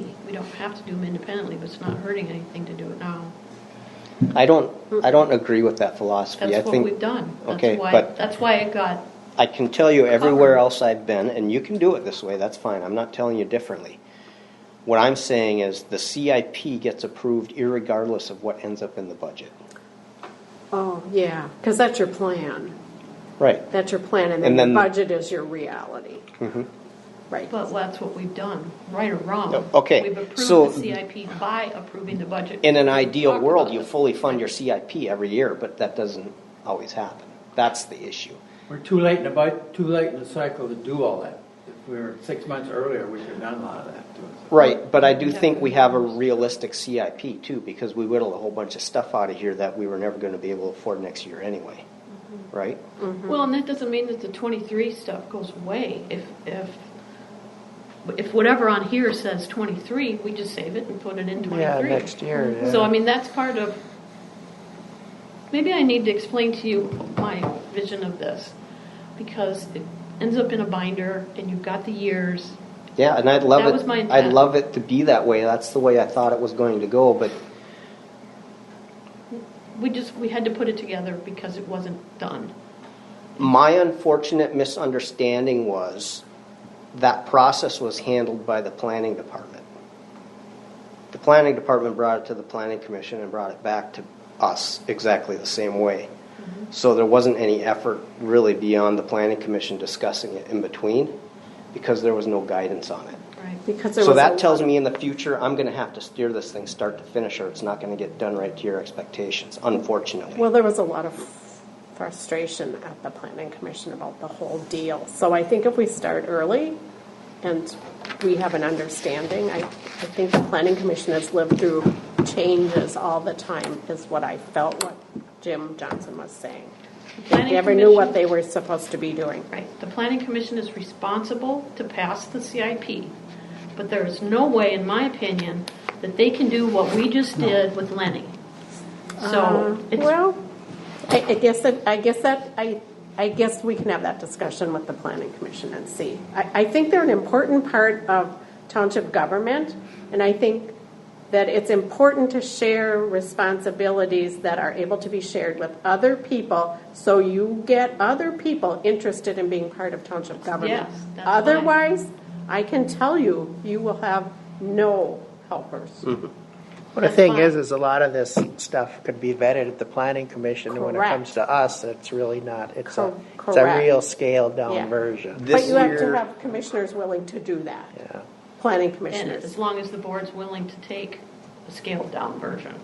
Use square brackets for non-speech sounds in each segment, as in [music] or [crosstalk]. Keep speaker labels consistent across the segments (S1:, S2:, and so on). S1: We don't have to do them independently, but it's not hurting anything to do it now.
S2: I don't, I don't agree with that philosophy. I
S1: That's what we've
S2: think,
S1: done.
S2: okay,
S1: That's why,
S2: but-
S1: that's why it got,
S2: I can tell you everywhere
S1: Uh-uh.
S2: else I've been, and you can do it this way, that's fine, I'm not telling you differently. What I'm saying is the CIP gets approved irregardless of what ends up in the budget.
S3: Oh, yeah, because that's your plan.
S2: Right,
S3: That's your plan, and
S2: And
S3: then
S2: then- Mm-hmm.
S3: the budget is your reality. Right.
S1: but that's what we've done, right or wrong.
S2: Oh, okay,
S1: We've approved
S2: so-
S1: the CIP by approving the budget.
S2: in an ideal
S1: Talk
S2: world,
S1: about
S2: you
S1: it.
S2: fully fund your CIP every year, but that doesn't always happen. That's the issue.
S4: We're too late in the, bu- too late in the cycle to do all that. If we were six months earlier, we could have done a lot of that. too.
S2: Right, but I do think we have a realistic CIP too, because we whittle a whole bunch of stuff out of here that we were never gonna be able to afford next year anyway,
S1: Mm-hmm.
S2: right?
S1: Well, and that doesn't mean that the twenty-three stuff goes away. If, if, if whatever on here says twenty-three, we just save it and put it in twenty-three. Mm-hmm.
S5: Yeah, next year, yeah.
S1: So, I mean, that's part of, maybe I need to explain to you my vision of this, because it ends up in a binder, and you've got the years.
S2: Yeah, and I'd love
S1: That
S2: it.
S1: was my
S2: I'd
S1: intent.
S2: love it to be that way. That's the way I thought it was going to go, but
S1: We just, we had to put it together because it wasn't done.
S2: my unfortunate misunderstanding was that process was handled by the planning department. The planning department brought it to the planning commission and brought it back to us exactly the same way.
S1: Mm-hmm.
S2: So there wasn't any effort really beyond the planning commission discussing it in between because there was no guidance on it.
S1: Right.
S3: Because there
S2: So
S3: was
S2: that
S3: a
S2: tells me in the future, I'm gonna have to steer this thing start to finish, or it's not gonna get done right to your expectations, unfortunately.
S3: Well, there was a lot of frustration at the planning commission about the whole deal. So I think if we start early and we have an understanding, I, I think the planning commission has lived through changes all the time, is what I felt what Jim Johnson was saying. They
S1: Planning
S3: never knew what
S1: commission-
S3: they were supposed to be doing.
S1: Right, the planning commission is responsible to pass the CIP, but there is no way, in my opinion, that they can do what we just did with Lenny. So, it's,
S3: Uh, Um, Well, I, I guess that, I guess that, I, I guess we can have that discussion with the planning commission and see. I, I think they're an important part of township government, and I think that it's important to share responsibilities that are able to be shared with other people, so you get other people interested in being part of township government.
S1: Yes, that's why.
S3: Otherwise, I can tell you, you will have no helpers.
S2: Mm-hmm.
S5: Well, the thing is,
S1: fine.
S5: is a lot of this stuff could be vetted at the planning commission, and when it
S3: Correct.
S5: comes to us, it's really not, it's a,
S3: Co-
S5: it's a
S3: correct.
S5: real scaled
S3: Yeah.
S5: down version.
S2: This
S3: But you have
S2: year-
S3: to have commissioners willing to do that.
S5: Yeah.
S3: Planning
S1: and as
S3: commissioners.
S1: long as the board's willing to take a scaled-down version.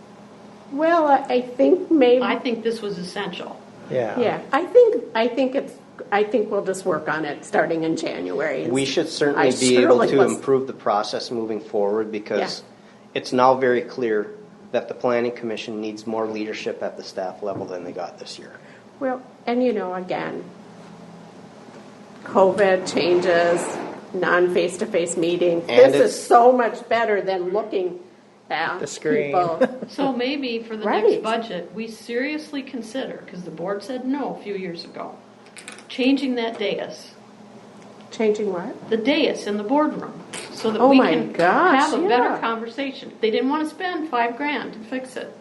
S3: Well, I I think maybe,
S1: I think this was essential.
S3: yeah, I think, I think it's, I think we'll just work on it starting in January. and
S2: We
S3: see.
S2: should certainly
S3: I
S2: be able
S3: surely
S2: to
S3: was-
S2: improve the process moving forward, because
S3: Yeah.
S2: it's now very clear that the planning commission needs more leadership at the staff level than they got this year.
S3: Well, and you know, again, COVID changes, non-face-to-face meeting.
S2: And
S3: This is
S2: it's-
S3: so much better than looking at
S5: The
S1: [laughs]
S5: screen.
S3: people. [laughs]
S1: So maybe for the next
S3: Right.
S1: budget, we seriously consider, because the board said no a few years ago, changing that dais,
S3: Changing what?
S1: the dais in the boardroom, so that
S3: Oh
S1: we
S3: my
S1: can
S3: gosh,
S1: have a better
S3: yeah.
S1: conversation. They didn't want to spend five grand to fix it.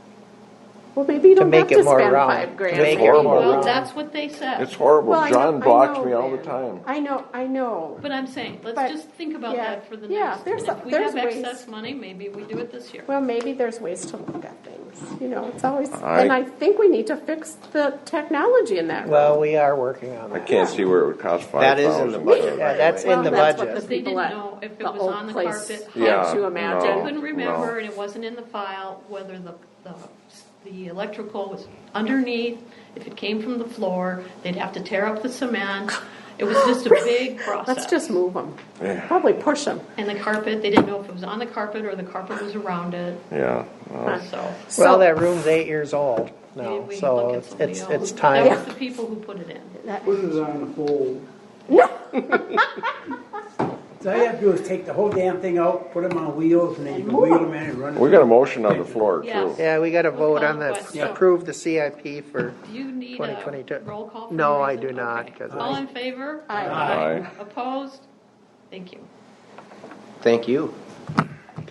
S3: Well, maybe you don't have
S5: make it
S3: to
S5: more
S3: spend
S5: round.
S3: five grand.
S5: Make it
S3: maybe.
S5: more
S1: Well,
S5: round.
S1: that's what they said.
S6: It's horrible.
S3: Well, I know-
S6: John
S3: I
S6: blocks
S3: know,
S6: me all the
S3: man.
S6: time.
S3: I know, I know.
S1: But I'm saying, let's
S3: But-
S1: just think about
S3: yeah,
S1: that for the
S3: yeah,
S1: next.
S3: there's-
S1: If we
S3: there's
S1: have
S3: ways.
S1: excess money, maybe we do it this year.
S3: Well, maybe there's ways to look at things. You know, it's always,
S6: I-
S3: and I think we need to fix the technology in that.
S5: Well, we are working on
S6: I
S5: that.
S6: can't see where it would cost five
S2: That
S6: thousand.
S2: is in the budget,
S5: Yeah,
S2: by
S5: that's
S2: the way.
S5: in the
S3: Well, that's
S5: budget.
S3: what
S1: But they
S3: people
S1: didn't
S3: at
S1: know if it
S3: the
S1: was
S3: old
S1: on the
S3: place
S1: carpet,
S3: had
S6: Yeah,
S3: to
S6: no.
S1: I
S3: imagine.
S1: couldn't remember,
S6: no.
S1: and it wasn't in the file, whether the, the, the electrical was underneath, if it came from the floor, they'd have to tear up the cement. It was just
S5: [laughs]
S1: a big process.
S3: Let's just move them. Probably push them.
S1: And the carpet, they didn't know if it was on the carpet or the carpet was around it,
S6: Yeah. no.
S1: so.
S5: Well, that room's eight years old
S1: maybe
S5: now,
S1: we
S5: Oh. so
S1: look at
S5: it's,
S1: somebody
S5: it's
S1: else.
S5: it's time.
S1: That was the people who put it in.
S7: Put it on hold. [laughs] So all you have to do is take the whole damn thing out, put them on wheels, and then you can wheel them in and run.
S6: We got a motion on the floor too.
S1: Yes.
S5: Yeah, we gotta
S1: We'll
S5: vote
S1: call
S5: on
S1: it
S5: that,
S1: what's- Yeah.
S5: approve the CIP for,
S1: Do you need a
S5: 2022.
S1: roll call? for
S5: No,
S1: the
S5: I
S1: reason?
S5: do not,
S1: Okay.
S5: 'cause
S1: All
S5: I-
S1: in favor?
S3: Aye.
S6: Aye.
S1: Opposed? Thank you.
S2: Thank you.